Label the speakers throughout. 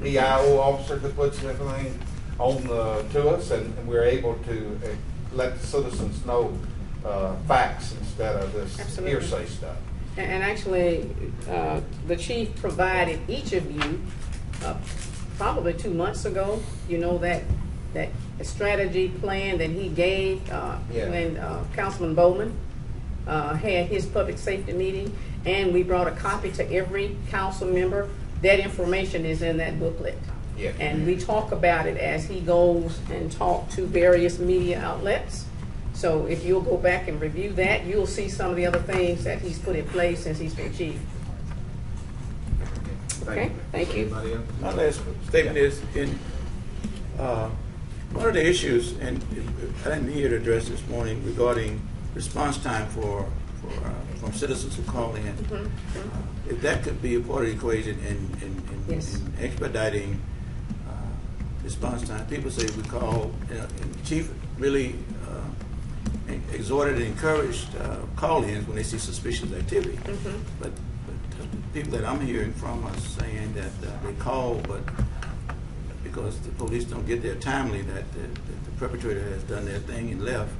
Speaker 1: EIO E officer that puts everything on the, to us, and and we're able to uh, let the citizens know uh, facts instead of this
Speaker 2: Absolutely.
Speaker 1: hearsay stuff.
Speaker 2: And and actually, uh, the chief provided each of you, uh, probably two months ago, you know, that, that strategy plan that he gave uh,
Speaker 1: Yeah.
Speaker 2: when uh, Councilman Bowman uh, had his public safety meeting, and we brought a copy to every council member. That information is in that booklet.
Speaker 1: Yeah.
Speaker 2: And we talk about it as he goes and talk to various media outlets. So if you'll go back and review that, you'll see some of the other things that he's put in place since he's been chief. Okay, thank you.
Speaker 1: Anybody else?
Speaker 3: My last statement is, in, uh, one of the issues, and I didn't hear it addressed this morning regarding response time for, for, uh, from citizens who call
Speaker 2: Mm-hmm.
Speaker 3: in. If that could be a part of the equation in, in- in
Speaker 2: Yes.
Speaker 3: in expediting, uh, response time, people say we call, you know, and chief really, uh, en- exhorted and encouraged, uh, call-ins when they see suspicious activity.
Speaker 2: Mm-hmm.
Speaker 3: But, but uh, the people that I'm hearing from are saying that uh, they call, but because the police don't get there timely, that the, that the perpetrator has done their thing and left.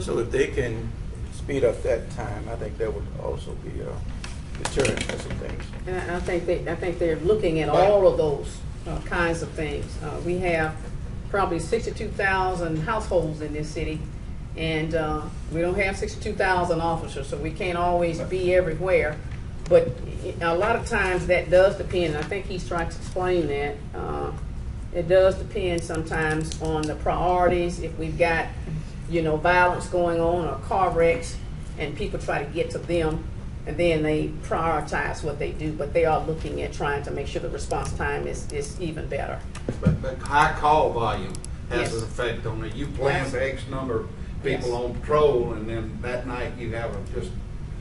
Speaker 3: So if they can speed up that time, I think that would also be a deterrent for some things.
Speaker 2: And I- I think they, I think they're looking at all of those uh, kinds of things. Uh, We have probably sixty-two thousand households in this city, and uh, we don't have sixty-two thousand officers, so we can't always be everywhere. But a lot of times that does depend, and I think he's trying to explain that, uh, it does depend sometimes on the priorities, if we've got, you know, violence going on or car wrecks, and people try to get to them, and then they prioritize what they do, but they are looking at trying to make sure the response time is, is even better.
Speaker 4: But, but high call volume has
Speaker 2: Yes.
Speaker 4: an effect on it. You plan for X number of people
Speaker 2: Yes.
Speaker 4: on patrol, and then that night you have them just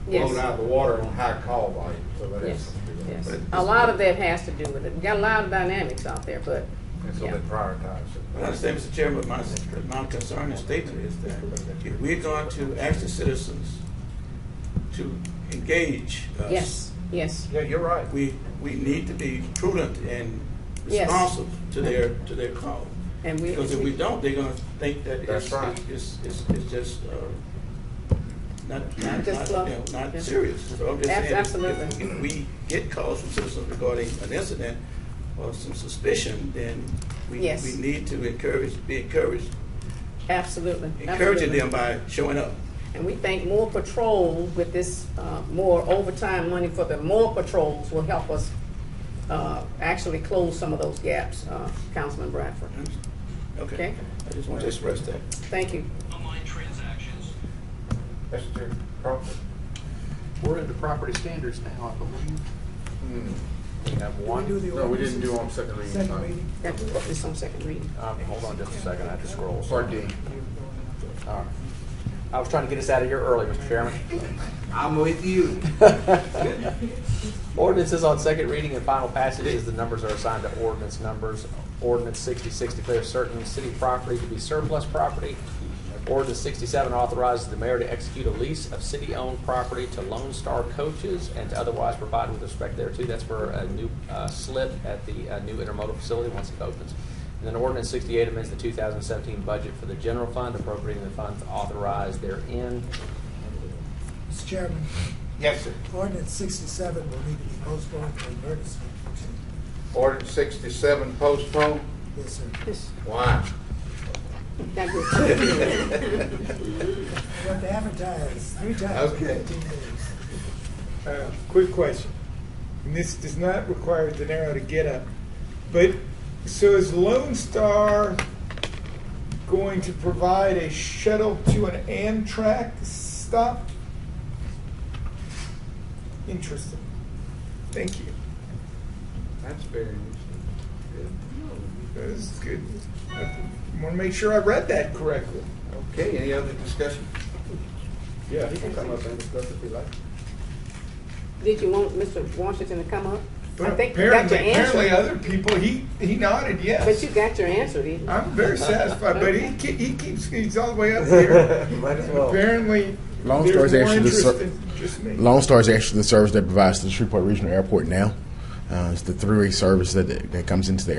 Speaker 2: Yes.
Speaker 4: blown out of the water on high call volume, so
Speaker 3: Oh,
Speaker 4: that is.
Speaker 2: Yes, yes. A lot of that has to do with it. We got a lot of dynamics out there, but,
Speaker 1: And so
Speaker 2: yeah.
Speaker 1: they prioritize
Speaker 3: I
Speaker 1: it.
Speaker 3: understand, Mr. Chairman, but my, my concern and statement is that if we're going to ask the citizens to engage us.
Speaker 2: Yes, yes,
Speaker 1: Yeah, you're right.
Speaker 3: We, we need to be prudent and
Speaker 2: Yes.
Speaker 3: responsive to their, to their call.
Speaker 2: and we.
Speaker 3: Because if we don't, they're gonna think that
Speaker 1: That's
Speaker 3: it's,
Speaker 1: right.
Speaker 3: it's, it's, it's just, uh, not, not,
Speaker 2: Just
Speaker 3: not,
Speaker 2: fluff.
Speaker 3: you know,
Speaker 2: Yeah.
Speaker 3: not serious. So I'm just
Speaker 2: Ab-
Speaker 3: saying, if-
Speaker 2: absolutely.
Speaker 3: If we get calls from citizens regarding an incident or some suspicion, then we,
Speaker 2: Yes.
Speaker 3: we need to encourage, be encouraged,
Speaker 2: Absolutely.
Speaker 3: encouraging
Speaker 2: absolutely.
Speaker 3: them by showing up.
Speaker 2: And we think more patrols with this, uh, more overtime money for the more patrols will help us uh, actually close some of those gaps, uh, Councilman Bradford.
Speaker 3: Mm-hmm.
Speaker 2: Okay.
Speaker 3: Okay? I just want to express that.
Speaker 2: Thank you.
Speaker 5: online transactions.
Speaker 1: Mr. Crawford?
Speaker 6: We're into property standards now, I believe.
Speaker 1: Hmm. We have one.
Speaker 7: No, we didn't do on second reading. Second reading.
Speaker 2: That is on second reading.
Speaker 6: Um, hold on just a second, I have to scroll.
Speaker 7: Part D.
Speaker 6: All right. I was trying to get us out of here early, Mr. Chairman.
Speaker 4: I'm with you.
Speaker 6: Ordinances on second reading and final passage as the numbers are assigned to ordinance numbers. Ordinance sixty-six declares certain city property to be surplus property. Ordinance sixty-seven authorizes the mayor to execute a lease of city-owned property to Lone Star Coaches and to otherwise provide with respect thereto. That's for a new uh, slip at the uh, new intermodal facility once it opens. And then ordinance sixty-eight amends the two thousand seventeen budget for the general fund appropriating the funds authorized therein.
Speaker 7: Mr. Chairman,
Speaker 1: Yes, sir.
Speaker 7: ordinance sixty-seven will need to be postponed for advertisement.
Speaker 1: Ordinance sixty-seven postponed.
Speaker 7: Yes, sir.
Speaker 2: Yes,
Speaker 1: Why?
Speaker 2: that good.
Speaker 7: We have to advertise three times in
Speaker 1: Okay.
Speaker 7: fifteen days.
Speaker 8: Uh, Quick question, and this does not require De Niro to get up, but, so is Lone Star going to provide a shuttle to an Amtrak stop? Interesting. Thank you.
Speaker 1: That's very interesting.
Speaker 8: That was good. I want to make sure I read that correctly.
Speaker 1: Okay, any other discussion?
Speaker 8: Yeah, he
Speaker 2: can come up and
Speaker 8: discuss if he likes.
Speaker 2: Did you want Mr. Washington to come up? I
Speaker 8: But
Speaker 2: think you got your
Speaker 8: apparently, apparently
Speaker 2: answer.
Speaker 8: other people, he, he nodded yes.
Speaker 2: But you got your answer, didn't you?
Speaker 8: I'm very satisfied, but he, ke- he keeps, he's all the way up here.
Speaker 3: Might as
Speaker 8: Apparently,
Speaker 9: Long
Speaker 8: there's
Speaker 9: story's
Speaker 8: more
Speaker 9: actually the
Speaker 8: interest
Speaker 9: sur-
Speaker 8: than just me.
Speaker 9: Lone Star is actually the service that provides to the Shreveport Regional Airport now. Uh, it's the three-way service that, that comes into the